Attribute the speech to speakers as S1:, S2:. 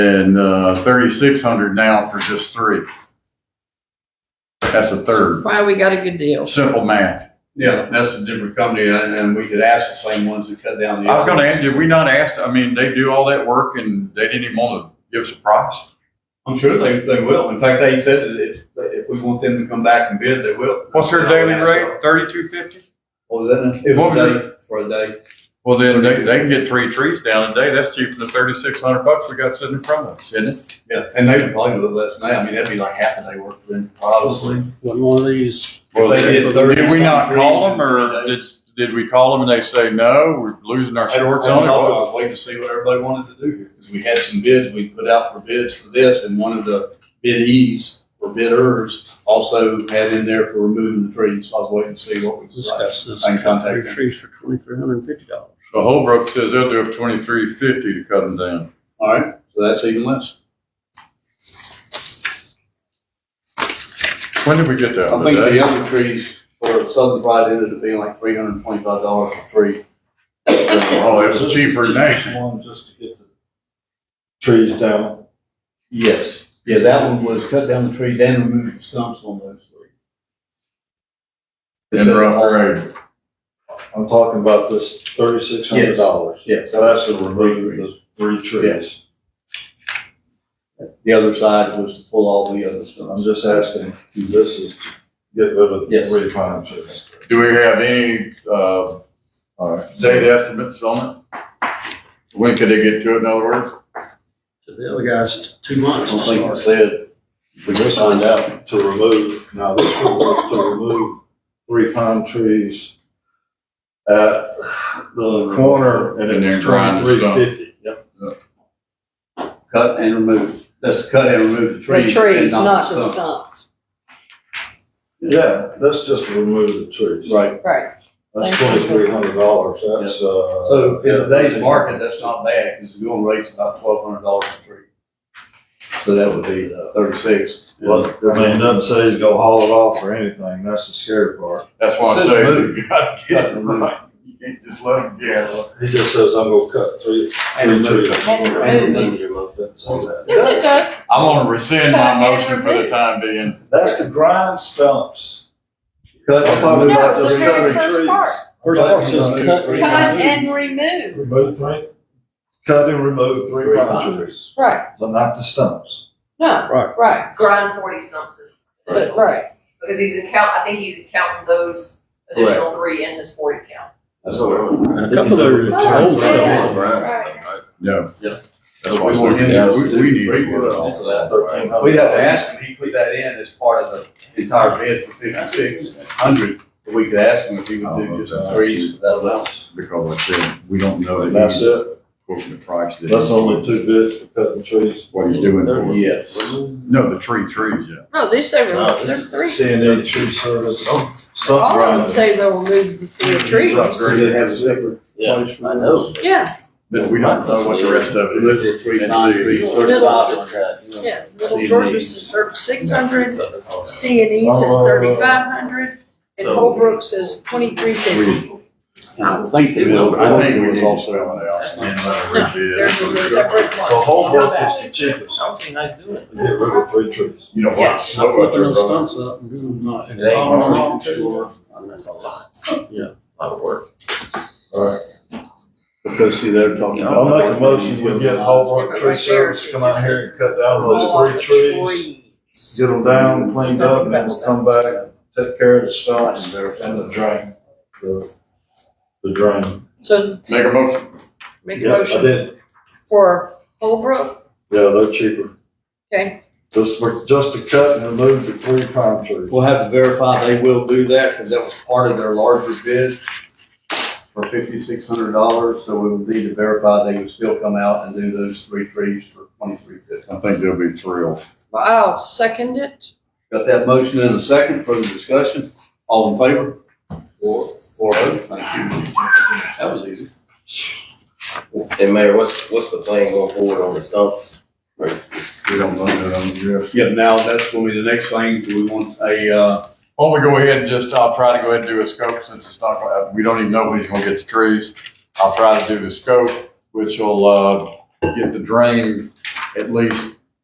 S1: and uh, thirty-six hundred now for just three. That's a third.
S2: Why we got a good deal.
S1: Simple math.
S3: Yeah, that's a different company, and, and we could ask the same ones who cut down the.
S1: I was gonna, ask, did we not ask, I mean, they do all that work and they didn't even want to give us a price?
S3: I'm sure they, they will. In fact, they said that if, if we want them to come back and bid, they will.
S1: What's their daily
S3: Yeah,
S1: rate? Thirty-two fifty?
S3: What was that? It
S1: What
S3: was
S1: was
S3: a day, for a day.
S1: Well, then they, they can get three trees down a day. That's cheaper than thirty-six hundred bucks we got sitting in front of us, isn't it?
S3: Yeah, and they would probably do it less than that. I mean, that'd be like half a day work for them, probably.
S4: When one of these,
S1: Well,
S3: If they
S1: did
S3: did 30
S1: we not
S3: some
S1: call
S3: trees
S1: them or
S3: in
S1: did, did we call them and they say, no, we're losing our shorts
S3: I- I
S1: on it?
S3: don't know. I
S1: Well,
S3: was waiting to see what everybody wanted to do here, because we had some bids, we put out for bids for this, and one of the bidees or bidders also had in there for removing the trees, so I was waiting to see what we decided.
S4: discuss this,
S3: I can contact
S4: three
S3: them.
S4: trees for twenty-three hundred and fifty dollars.
S1: So Holbrook says they'll do it twenty-three fifty to cut them down.
S3: All right, so that's even less.
S1: When did we get that?
S3: I think the other trees for Southern Pride ended up being like three hundred and twenty-five dollars a tree.
S1: Oh, it was cheaper than that.
S5: One just to get the trees down.
S3: Yes. Yeah, that one was cut down the trees and removed the stumps on those three. uh,
S1: In rough grade.
S5: I'm talking about this thirty-six hundred dollars.
S3: Yeah,
S5: So that's to remove the three trees.
S3: The other side was to pull all the other stuff.
S5: I'm just asking, this is to get rid of the
S3: Yes.
S5: three pine trees.
S1: Do we have any, uh,
S5: All right.
S1: date estimates on it? When could they get to it, in other words?
S4: So the other guy's t- two months
S3: I
S4: to
S3: don't think
S4: start.
S3: it said,
S5: We just find out to remove, now this one was to remove three pine trees at the corner and
S1: And
S5: it
S1: then
S5: was
S1: grind the
S5: twenty-three
S1: stump.
S5: fifty.
S3: cut and remove, that's cut and remove the
S2: The
S3: trees. and
S2: trees, not the
S3: stumps.
S2: stumps.
S5: Yeah, that's just to remove the trees.
S3: Right,
S2: Right.
S5: That's
S2: Thank you.
S5: twenty-three hundred dollars, that's, uh.
S3: so in today's market, that's not bad, because the going rate's about twelve hundred dollars a tree. So that would be uh, thirty-six.
S5: Well, I mean, it doesn't say he's gonna haul it off or anything, that's the scary part.
S1: That's why I
S3: Says
S1: say
S3: move.
S1: we gotta get it
S3: Cut move.
S1: right. You can't just let them guess.
S5: He just says, I'm gonna cut three,
S3: And
S5: three
S3: remove
S5: trees.
S3: it.
S2: And remove
S5: Doesn't say that.
S2: Yes, it does.
S1: I'm gonna rescind my motion for the
S2: Remove.
S1: time being.
S5: That's the grind stumps.
S3: Cut
S5: I'm talking
S3: and
S5: about
S2: No,
S5: those
S2: the very
S5: cutting
S2: first
S5: trees.
S2: part.
S4: First part says cut.
S3: Cut
S2: Cut
S4: remove.
S2: and remove.
S5: Cut and remove three
S3: Three
S5: pine
S3: pine
S5: trees,
S2: Right,
S5: but not the stumps.
S2: no,
S4: Right.
S2: right,
S6: grind forty stumps is
S2: but,
S6: additional,
S2: right.
S6: because he's account, I think he's accounting those additional three in his forty count.
S3: That's what we're.
S4: And A couple of the old stuff.
S2: Right.
S1: No.
S3: Yeah.
S1: That's why I
S3: We want
S1: said,
S3: him to
S1: we, we need to get it all.
S3: This is that
S5: Thirteen hundred.
S3: We'd have to ask him, he put that in as part of the entire bid for fifty-six hundred, but we could ask him if he would do just the trees for that allowance.
S1: Because I said, we don't know that
S5: That's
S1: he's
S5: it,
S1: quoting the price. that
S5: that's
S1: he's-
S5: only two bids for cutting trees.
S1: What he's doing for us.
S3: Yes.
S1: No, the tree, trees, yeah.
S2: No, they say remove,
S4: No,
S2: there's three.
S5: C and E tree service,
S2: Oh,
S5: stump
S2: All of them
S5: grinding.
S2: say they'll remove the three trees.
S3: So they have a separate,
S4: Yeah, I know.
S2: Yeah,
S1: But we don't know what the rest of it is.
S3: little three, nine trees,
S2: Middle.
S3: thirty-five.
S2: yeah, Little George's is thirty-six hundred, C and E says
S5: Uh,
S2: thirty-five hundred, and Holbrook says twenty-three fifty.
S3: I think they will, but I think it was also on the outside.
S2: There's
S1: There's
S2: a separate
S5: So
S2: one.
S5: Holbrook is the cheapest,
S4: I don't think I do it.
S5: to get rid of three trees.
S1: You know
S4: Yeah,
S1: what?
S4: I'm
S1: Slow up
S4: flipping
S1: there,
S4: those
S1: brother.
S4: stumps up and doing them not.
S3: It ain't
S4: All
S3: hard.
S4: wrong, too.
S7: That's a lot.
S4: Yeah.
S7: A lot of work.
S3: Because see, they're talking.
S5: I'll make a motion, we get Holbrook Tree Service, to come out here and cut down
S2: All of
S5: those
S2: the
S5: three trees.
S2: trees.
S5: get them down, cleaned up, and then we'll come back, take care of the stumps and the drain, the, the drain.
S2: So
S1: Make a motion.
S2: make a
S5: Yeah, I
S2: motion
S5: did,
S2: for Holbrook,
S5: yeah, they're cheaper,
S2: okay,
S5: just, for- just to cut and remove the three pine trees.
S3: We'll have to verify they will do that, because that was part of their larger bid for fifty-six hundred dollars, so we would need to verify they would still come out and do those three trees for twenty-three fifty.
S1: I think they'll be thrilled.
S2: well, I'll second it,
S3: Got that motion in a second, further discussion, all in favor? Four, four oh, thank you. That was easy.
S7: And Mayor, what's, what's the plan going forward on the stumps?
S1: We don't know that on the
S3: Yeah, now that's gonna be the next thing, do we want a, uh,
S1: Why don't we go ahead and just, I'll try to go ahead and do a scope since it's not, gonna happen. we don't even know when he's gonna get the trees. I'll try to do the scope, which will, uh, get the drain at least